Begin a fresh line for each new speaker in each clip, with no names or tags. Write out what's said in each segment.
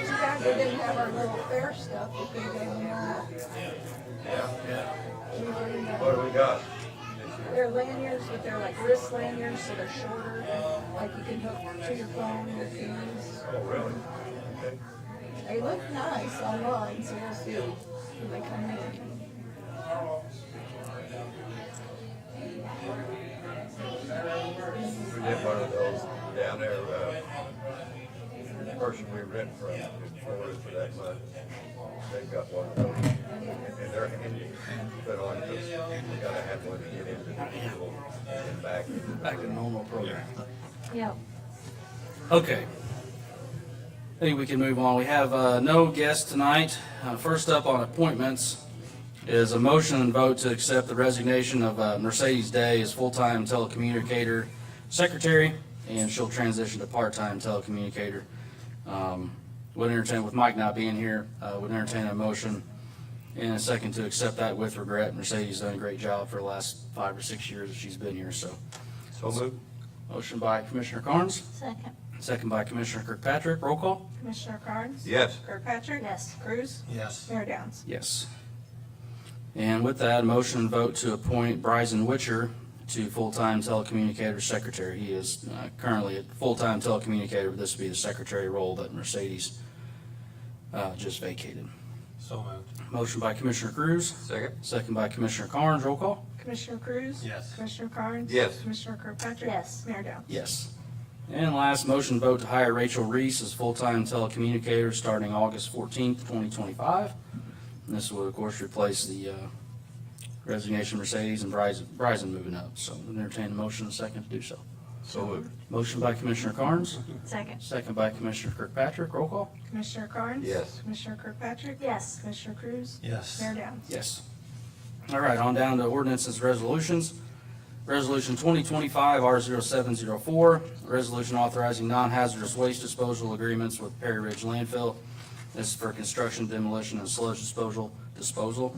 didn't have our little fair stuff, we could go now.
Yeah, yeah.
We were in
What do
the-
we got?
They're lanyards, but they're like wrist lanyards, so they're shorter, like you can hook to your phone with these.
Oh, really? Okay.
They look nice online, so we'll see when they come in.
We did one of those down there, uh, person we rent from, in Florida for that month. They got one of those, and they're handy, to put on, 'cause you gotta have one to get into the vehicle and back.
Back to normal program.
Yeah.
Okay. I think we can move on. We have uh, no guests tonight. Uh, First up on appointments is a motion and vote to accept the resignation of uh, Mercedes Day as full-time telecommunicator secretary, and she'll transition to part-time telecommunicator. Um, Would entertain, with Mike not being here, uh, would entertain a motion and a second to accept that with regret. Mercedes done a great job for the last five or six years that she's been here, so.
So moved.
Motion by Commissioner Carnes.
Second.
Second by Commissioner Kirkpatrick. Roll call?
Commissioner Carnes?
Yes.
Kirkpatrick?
Yes.
Cruz?
Yes.
Mayor Downs?
Yes. And with that, motion and vote to appoint Bryson Witcher to full-time telecommunicator secretary. He is uh, currently a full-time telecommunicator, but this would be the secretary role that Mercedes uh, just vacated.
So moved.
Motion by Commissioner Cruz,
Second?
second by Commissioner Carnes. Roll call?
Commissioner Cruz?
Yes.
Commissioner Carnes?
Yes.
Commissioner Kirkpatrick?
Yes.
Mayor Downs?
Yes. And last, motion vote to hire Rachel Reese as full-time telecommunicator starting August fourteenth, twenty twenty-five. This will, of course, replace the uh, resignation Mercedes and Bryson, Bryson moving up. So entertain a motion and a second to do so.
So moved.
Motion by Commissioner Carnes,
Second.
second by Commissioner Kirkpatrick. Roll call?
Commissioner Carnes?
Yes.
Commissioner Kirkpatrick?
Yes.
Commissioner Cruz?
Yes.
Mayor Downs?
Yes. All right, on down to ordinances, resolutions. Resolution 2025 R0704, resolution authorizing non-hazardous waste disposal agreements with Perry Ridge Landfill. This is for construction, demolition, and sludge disposal, disposal.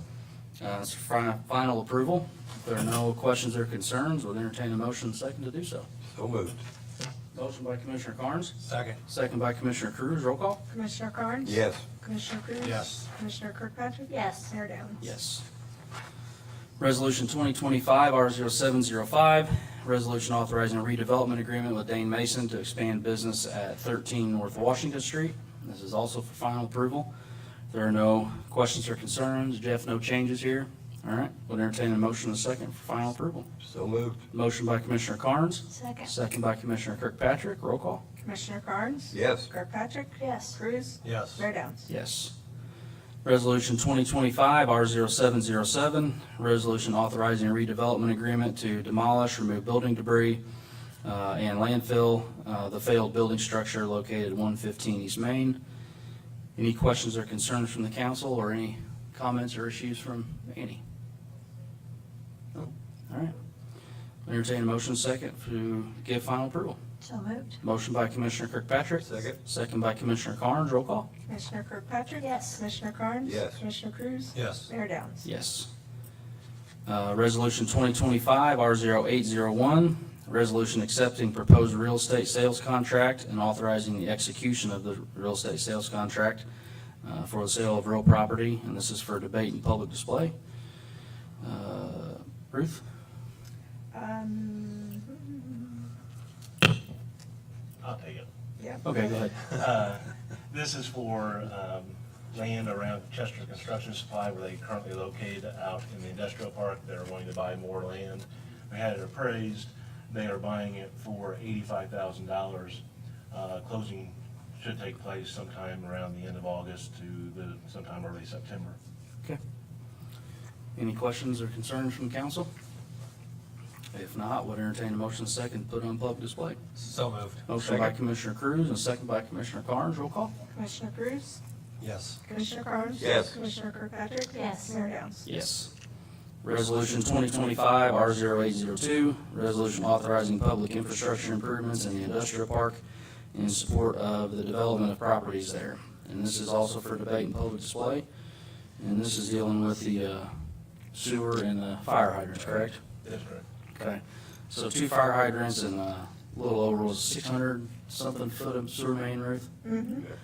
Uh, It's fi- final approval. If there are no questions or concerns, we'll entertain a motion second to do so.
So moved.
Motion by Commissioner Carnes,
Second.
second by Commissioner Cruz. Roll call?
Commissioner Carnes?
Yes.
Commissioner Cruz?
Yes.
Commissioner Kirkpatrick?
Yes.
Mayor Downs?
Yes. Resolution 2025 R0705, resolution authorizing a redevelopment agreement with Dane Mason to expand business at 13 North Washington Street. This is also for final approval. There are no questions or concerns. Jeff, no changes here. All right, we'll entertain a motion in a second for final approval.
So moved.
Motion by Commissioner Carnes,
Second.
second by Commissioner Kirkpatrick. Roll call.
Commissioner Carnes?
Yes.
Kirkpatrick?
Yes.
Cruz?
Yes.
Mayor Downs?
Yes. Resolution 2025 R0707, resolution authorizing a redevelopment agreement to demolish, remove building debris, uh, and landfill uh, the failed building structure located 115 East Main. Any questions or concerns from the council, or any comments or issues from Annie? No? All right. Entertain a motion second to give final approval.
So moved.
Motion by Commissioner Kirkpatrick.
Second.
Second by Commissioner Carnes. Roll call.
Commissioner Kirkpatrick?
Yes.
Commissioner Carnes?
Yes.
Commissioner Cruz?
Yes.
Mayor Downs?
Yes. Uh, Resolution 2025 R0801, resolution accepting proposed real estate sales contract and authorizing the execution of the real estate sales contract uh, for the sale of real property, and this is for debate and public display. Uh, Ruth?
Um,
I'll take it.
yeah.
Okay, go ahead.
Uh, This is for um, land around Chester Construction Supply where they currently located out in the industrial park. They're wanting to buy more land. They had it appraised. They are buying it for eighty-five thousand dollars. Uh, Closing should take place sometime around the end of August to the, sometime early September.
Any questions or concerns from council? If not, would entertain a motion second, put on public display.
So moved.
Motion by Commissioner Cruz and second by Commissioner Carnes. Roll call.
Commissioner Cruz?
Yes.
Commissioner Carnes?
Yes.
Commissioner Kirkpatrick?
Yes.
Mayor Downs?
Yes. Resolution 2025 R0802, resolution authorizing public infrastructure improvements in the industrial park in support of the development of properties there. And this is also for debate and public display. And this is dealing with the uh, sewer and the fire hydrants, correct?
That's correct.
Okay. So two fire hydrants and uh, a little over, was it 600 something foot of sewer main, Ruth?
Mm-hmm.